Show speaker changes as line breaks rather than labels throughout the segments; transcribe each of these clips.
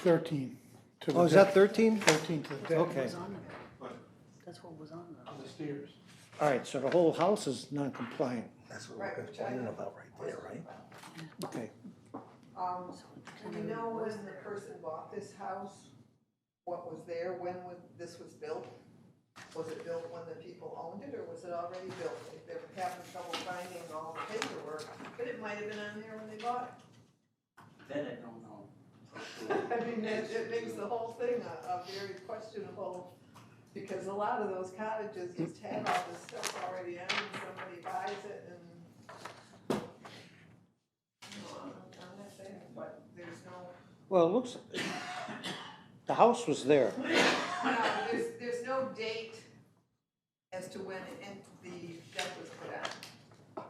thirteen. to the
Oh, is that
deck.
13?
Thirteen to the deck.
Okay,
was on there. That's what was on there.
The stairs.
all right, so the whole house is non-compliant,
That's what we're complaining about right there, right?
okay.
Um, do we know when the person bought this house, what was there, when was, this was built? Was it built when the people owned it, or was it already built? If they were having trouble finding all the paperwork, but it might have been on there when they bought
Then I don't know. for
it.
sure.
I mean, that, it makes the whole thing a, a very questionable, because a lot of those cottages just have all this stuff already in, and somebody buys it and. No, I'm I'm not saying, but there's no.
Well, it looks, the house was there,
No, there's, there's no date as to when it- and the deck was put on.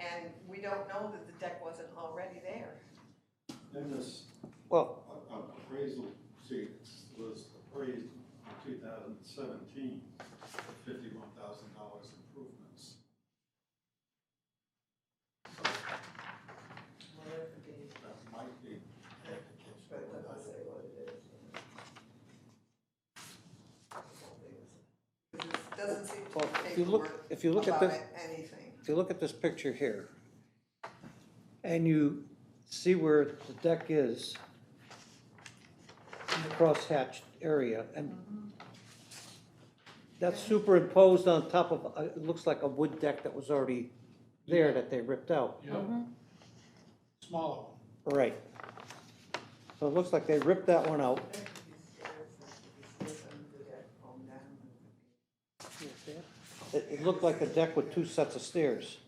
And we don't know that the deck wasn't already there.
Then this
well,
a- a- appraisal, see, it's- was appraised in two thousand seventeen, fifty-one thousand dollars improvements. That might be an indication.
But it doesn't say what it is. It
of that.
doesn't seem
Well,
to
if you look-
paperwork
if you look at
about
the-
it, anything.
if you look at this picture here, and you see where the deck is, in the crosshatched area, and that's superimposed on top of, uh, it looks like a wood deck that was already there that they ripped out.
Yep. Smaller one.
Right. So it looks like they ripped that one out.
That could be stairs, that could be stairs under the deck, going down, and
It, it looked like a deck with two sets of stairs.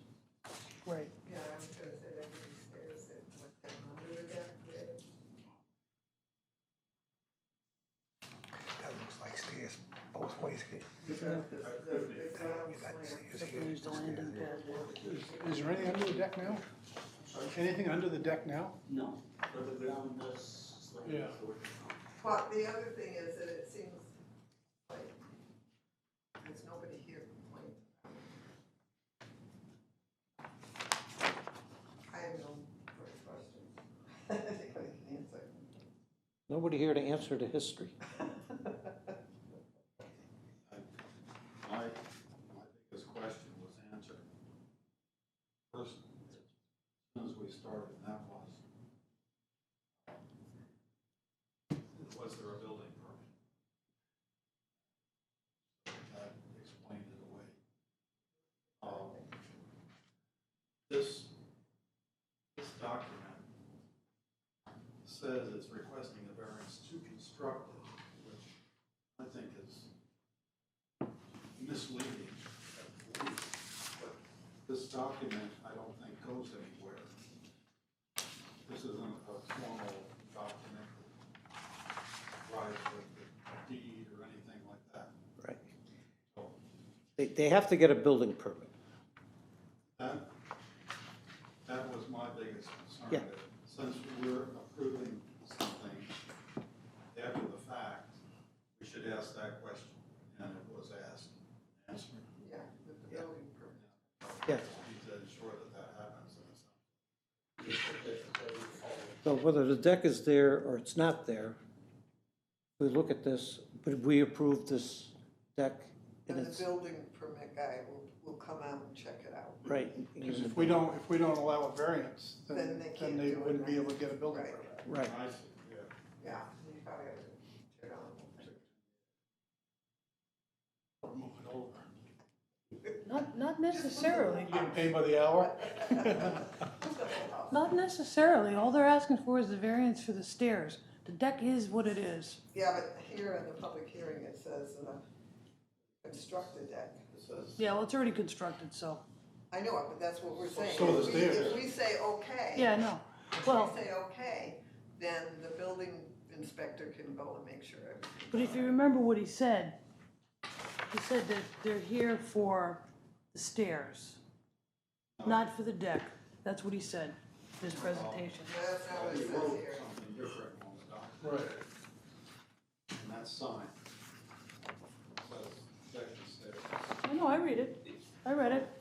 could
Right.
be- Yeah, I was gonna say that could be stairs that went down under the deck, yeah.
That looks like stairs both ways. You got stairs here,
There's
stairs
the landing
there.
pad where
Is- Is there anything under the deck now? Anything under the deck now?
No, but the ground does slightly.
Yeah.
forward.
But the other thing is that it seems like there's nobody here complaining. I have no further questions. I think I can answer.
Nobody here to answer to history.
My, my biggest question was answered. First, as soon as we started, and that was, was there a building permit? That explained it away. Um, This, this document says it's requesting a variance to construct it, which I think is misleading at least, but this document, I don't think goes anywhere. This isn't a formal document that arrives with a deed or anything like that.
Right.
So
They, they have to get a building permit.
that, that was my biggest concern.
Yeah.
that Since we're approving something after the fact, we should ask that question, and it was asked, answered.
Yeah, with the building permit.
Yeah.
He said, sure that that happens, and it's not
So whether the deck is there or it's not there, we look at this, but we approve this deck and
And the
it's,
building permit guy will, will come out and check it out.
right.
Because if we don't, if we don't allow a variance,
Then
then,
they can't
then they
do it,
wouldn't be
right?
able to get a building
Right.
permit.
Right,
nice, yeah.
Yeah, you probably have to check on it.
Move it over.
Not, not necessarily,
You getting paid by the hour?
not necessarily. All they're asking for is the variance for the stairs. The deck is what it is.
Yeah, but here in the public hearing, it says, uh, construct the deck.
It says,
Yeah, well, it's already constructed, so,
I know it, but that's what we're saying.
so
If
the
we-
stairs.
If we say okay.
yeah, no.
If
Well.
we say okay, then the building inspector can go and make sure. everything-
But if you remember what he said, he said that they're here for the stairs, not for the deck. That's what he said, in his presentation.
That's not
well,
what it
you
says
wrote
here.
something different on the document,
Right.
and that's signed. Says, section six.
I know, I read it. I read it.